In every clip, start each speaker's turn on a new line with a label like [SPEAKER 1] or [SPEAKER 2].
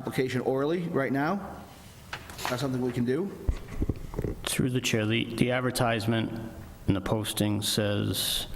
[SPEAKER 1] application orally right now? That's something we can do?
[SPEAKER 2] Through the chair, the the advertisement and the posting says,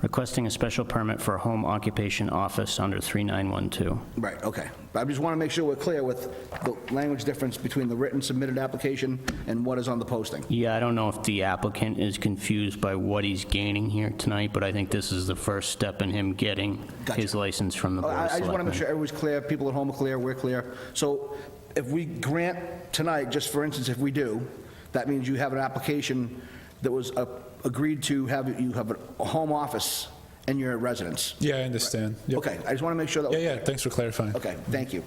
[SPEAKER 2] requesting a special permit for a home occupation office under 3912.
[SPEAKER 1] Right, okay. But I just want to make sure we're clear with the language difference between the written submitted application and what is on the posting.
[SPEAKER 2] Yeah, I don't know if the applicant is confused by what he's gaining here tonight, but I think this is the first step in him getting his
[SPEAKER 1] Gotcha.
[SPEAKER 2] license from the
[SPEAKER 1] I
[SPEAKER 2] Board
[SPEAKER 1] I
[SPEAKER 2] of
[SPEAKER 1] just want to make sure
[SPEAKER 2] Selectmen.
[SPEAKER 1] everyone's clear, people at home are clear, we're clear. So if we grant tonight, just for instance, if we do, that means you have an application that was uh, agreed to have, you have a home office in your residence.
[SPEAKER 3] Yeah, I understand. Yep.
[SPEAKER 1] Okay, I just want to make sure that.
[SPEAKER 3] Yeah, yeah, thanks for clarifying.
[SPEAKER 1] Okay, thank you.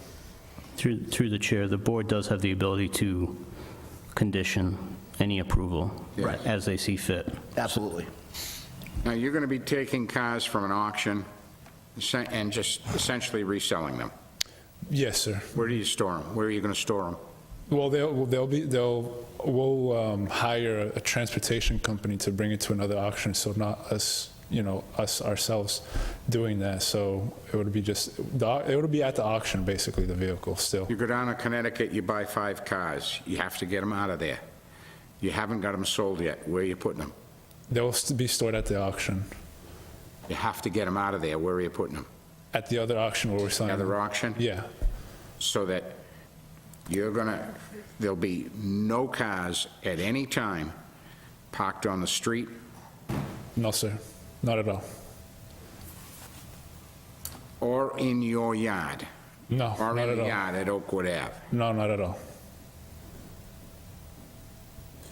[SPEAKER 2] Through through the chair, the board does have the ability to condition any approval
[SPEAKER 1] Right.
[SPEAKER 2] as they see fit.
[SPEAKER 1] Absolutely.
[SPEAKER 4] Now, you're going to be taking cars from an auction se- and just essentially reselling them.
[SPEAKER 3] Yes, sir.
[SPEAKER 4] Where do you store them? Where are you going to store them?
[SPEAKER 3] Well, they'll, they'll be, they'll, we'll um, hire a transportation company to bring it to another auction, so not us, you know, us ourselves doing that. So it would be just, the- it would be at the auction, basically, the vehicle still.
[SPEAKER 4] You go down to Connecticut, you buy five cars. You have to get them out of there. You haven't got them sold yet. Where are you putting them?
[SPEAKER 3] They will st- be stored at the auction,
[SPEAKER 4] You have to get them out of there. Where are you putting them?
[SPEAKER 3] at the other auction where we're selling.
[SPEAKER 4] Another
[SPEAKER 3] them.
[SPEAKER 4] auction?
[SPEAKER 3] Um, Yeah,
[SPEAKER 4] So that you're going to, there'll be no cars at any time parked on the street.
[SPEAKER 3] no, sir, not at all.
[SPEAKER 4] Or in your yard.
[SPEAKER 3] No,
[SPEAKER 4] Or
[SPEAKER 3] not
[SPEAKER 4] in
[SPEAKER 3] at
[SPEAKER 4] the
[SPEAKER 3] all.
[SPEAKER 4] yard at Oakwood Ave.
[SPEAKER 3] No, not at all.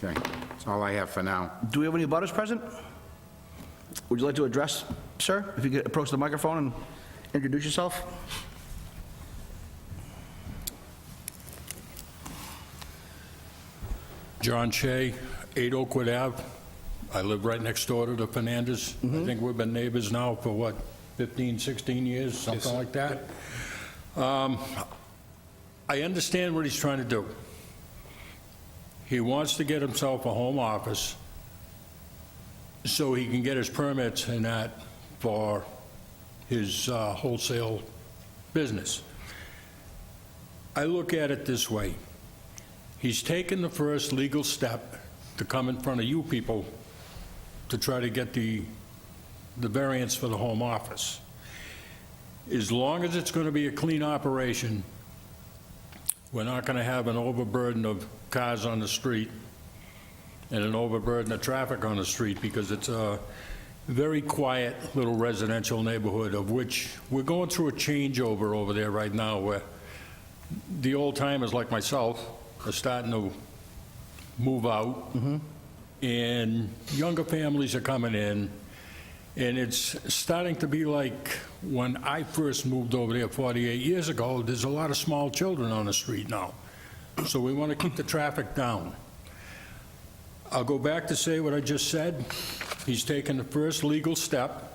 [SPEAKER 4] Okay, that's all I have for now.
[SPEAKER 1] Do we have any butters present? Would you like to address, sir? If you could approach the microphone and introduce yourself?
[SPEAKER 5] John Shea, 8 Oakwood Ave. I live right next door to the Fernandez. I think we've been neighbors now for, what, 15, 16 years, something like that? Um, I understand what he's trying to do. He wants to get himself a home office so he can get his permits and that for his uh, wholesale business. I look at it this way. He's taken the first legal step to come in front of you people to try to get the, the variance for the home office. As long as it's going to be a clean operation, we're not going to have an overburden of cars on the street and an overburden of traffic on the street because it's a very quiet little residential neighborhood of which, we're going through a changeover over there right now where the old timers like myself are starting to move out, and younger families are coming in, and it's starting to be like when I first moved over there 48 years ago, there's a lot of small children on the street now. So we want to keep the traffic down. I'll go back to say what I just said. He's taken the first legal step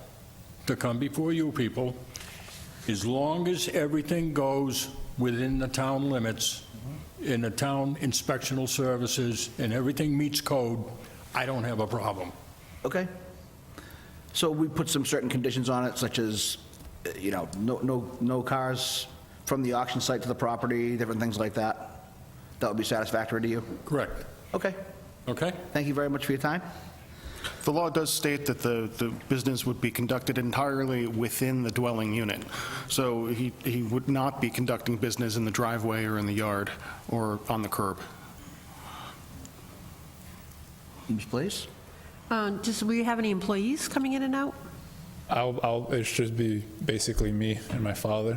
[SPEAKER 5] to come before you people. As long as everything goes within the town limits, in the town inspectional services, and everything meets code, I don't have a problem.
[SPEAKER 1] Okay. So we put some certain conditions on it, such as, uh, you know, no, no, no cars from the auction site to the property, different things like that. That would be satisfactory to you?
[SPEAKER 5] Correct.
[SPEAKER 1] Okay.
[SPEAKER 5] Okay?
[SPEAKER 1] Thank you very much for your time.
[SPEAKER 6] The law does state that the, the business would be conducted entirely within the dwelling unit. So he, he would not be conducting business in the driveway or in the yard or on the curb.
[SPEAKER 1] Ms. Blaze?
[SPEAKER 7] Uh, Just, will you have any employees coming in and out?
[SPEAKER 3] I'll, I'll, it should be basically me and my father.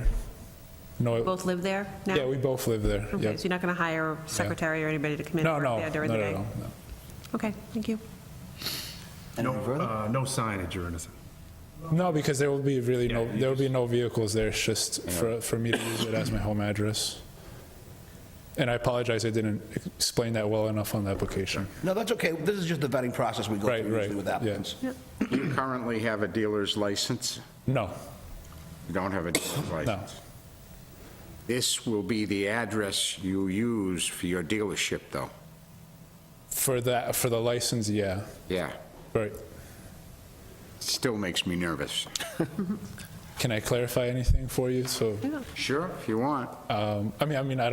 [SPEAKER 3] No, it-
[SPEAKER 7] Both live there now?
[SPEAKER 3] yeah, we both live there,
[SPEAKER 7] Okay,
[SPEAKER 3] yep.
[SPEAKER 7] so you're not going to hire a secretary or anybody to come in
[SPEAKER 3] No,
[SPEAKER 7] and
[SPEAKER 3] no,
[SPEAKER 7] work
[SPEAKER 3] no,
[SPEAKER 7] there during
[SPEAKER 3] no,
[SPEAKER 7] the day?
[SPEAKER 3] no, no.
[SPEAKER 7] Okay, thank you.
[SPEAKER 1] Anything
[SPEAKER 8] No,
[SPEAKER 1] further?
[SPEAKER 8] uh, no signage or anything.
[SPEAKER 3] No, because there will be really no,
[SPEAKER 8] Yeah, you
[SPEAKER 3] there will be no vehicles there, it's just for, for me to use it as my home address. And I apologize, I didn't explain that well enough on the application.
[SPEAKER 1] No, that's okay. This is just the vetting process we go
[SPEAKER 3] Right,
[SPEAKER 1] through usually
[SPEAKER 3] right,
[SPEAKER 1] with
[SPEAKER 3] yeah.
[SPEAKER 1] applicants.
[SPEAKER 4] Do you currently have a dealer's license?
[SPEAKER 3] No,
[SPEAKER 4] You don't have a dealer's license? This will be the address you use for your dealership, though?
[SPEAKER 3] for that, for the license, yeah,
[SPEAKER 4] Yeah,
[SPEAKER 3] right.
[SPEAKER 4] still makes me nervous. Can I clarify anything for you? So,
[SPEAKER 3] Sure, if you want.
[SPEAKER 4] um, I mean, I mean, I don't